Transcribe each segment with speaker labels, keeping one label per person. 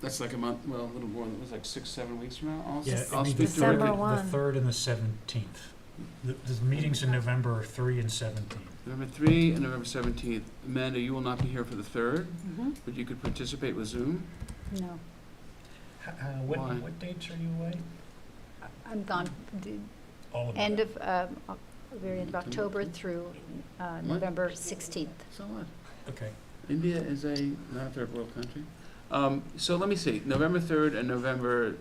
Speaker 1: That's like a month, well, a little more, it was like six, seven weeks from now. I'll,
Speaker 2: Yeah,
Speaker 1: I'll
Speaker 2: I mean,
Speaker 1: speak
Speaker 2: the third,
Speaker 1: directly.
Speaker 3: December
Speaker 2: the
Speaker 3: one.
Speaker 2: third and the seventeenth. The, the meetings in November are three and seventeen.
Speaker 1: November three and November seventeenth. Amanda, you will not be here for the third,
Speaker 3: Mhm.
Speaker 1: but you could participate with Zoom.
Speaker 3: No,
Speaker 2: Uh, what,
Speaker 1: Why?
Speaker 2: what dates are you away?
Speaker 3: I- I'm gone, the
Speaker 2: All of
Speaker 3: end
Speaker 2: them.
Speaker 3: of, um, Oc- very end of October through uh, November 16th.
Speaker 1: So what?
Speaker 2: Okay.
Speaker 1: India is a, not a third world country. Um, so let me see, November third and November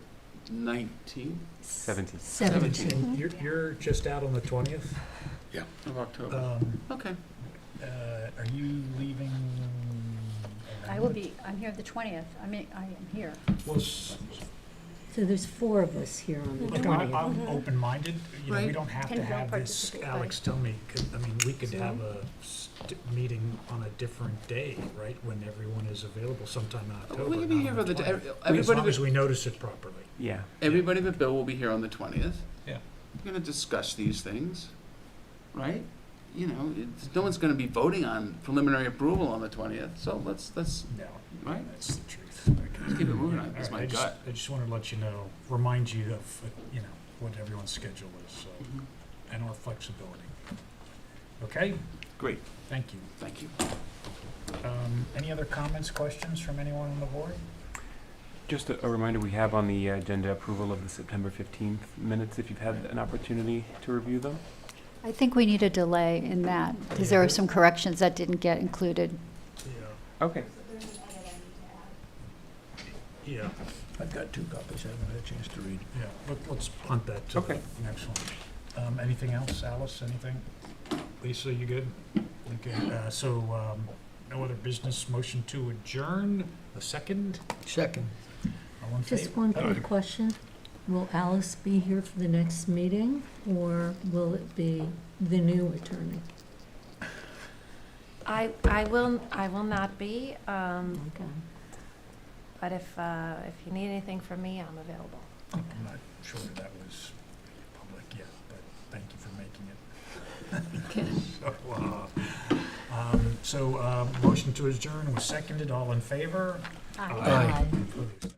Speaker 1: nineteenth
Speaker 4: Seventeen.
Speaker 1: Seventeenth.
Speaker 2: And You're, you're just out on the twentieth.
Speaker 1: of October.
Speaker 2: Um,
Speaker 1: Okay,
Speaker 2: uh, are you leaving?
Speaker 3: I will be, I'm here the 20th, I mean, I am here.
Speaker 2: Well, s-
Speaker 5: So there's four of us here on the
Speaker 2: Look, I'm,
Speaker 5: 20th.
Speaker 3: Mm-hmm.
Speaker 2: I'm open-minded, you know, we
Speaker 1: Right.
Speaker 2: don't have
Speaker 3: Can
Speaker 2: to
Speaker 3: we all
Speaker 2: have this,
Speaker 3: participate by-
Speaker 2: Alex, tell me, 'cause, I mean, we could have
Speaker 3: Zoom?
Speaker 2: a st- meeting on a different day, right? When everyone is available sometime in October.
Speaker 1: we can be
Speaker 2: not
Speaker 1: here
Speaker 2: on
Speaker 1: for the,
Speaker 2: twentieth.
Speaker 1: everybody.
Speaker 2: I mean, As long as we notice it properly.
Speaker 4: Yeah.
Speaker 1: Everybody but Bill will be here on the twentieth.
Speaker 2: Yeah.
Speaker 1: We're gonna discuss these things, right? You know, it's, no one's gonna be voting on preliminary approval on the twentieth, so let's, let's,
Speaker 2: No,
Speaker 1: right?
Speaker 2: that's the truth. Let's
Speaker 1: keep it moving on, that's my gut.
Speaker 2: I just wanted to let you know, remind you of, uh, you know, what everyone's schedule is, so, and our flexibility. Okay?
Speaker 4: Great.
Speaker 2: Thank you.
Speaker 1: Thank you.
Speaker 2: Um, Any other comments, questions from anyone on the board?
Speaker 4: Just a, a reminder, we have on the agenda approval of the September fifteenth minutes, if you've had an opportunity to review them.
Speaker 3: I think we need a delay in that, because there are some corrections that didn't get included.
Speaker 2: Yeah.
Speaker 4: Okay.
Speaker 2: Yeah. I've got two copies, I haven't had a chance to read. Yeah, but let's punt that to the
Speaker 4: Okay.
Speaker 2: next one. Um, anything else, Alice, anything? Lisa, you good? Okay, uh, so, um, no other business, motion to adjourn, a second,
Speaker 5: Second.
Speaker 2: all in
Speaker 5: Just
Speaker 2: favor?
Speaker 5: one quick question. Will Alice be here for the next meeting, or will it be the new attorney?
Speaker 6: I, I will, I will not be, um,
Speaker 5: Okay.
Speaker 6: but if, uh, if you need anything from me, I'm available.
Speaker 2: I'm not sure that was public yet, but thank you for making it. So, uh, um, so, uh, motion to adjourn was seconded, all in favor? Aye. Opposed?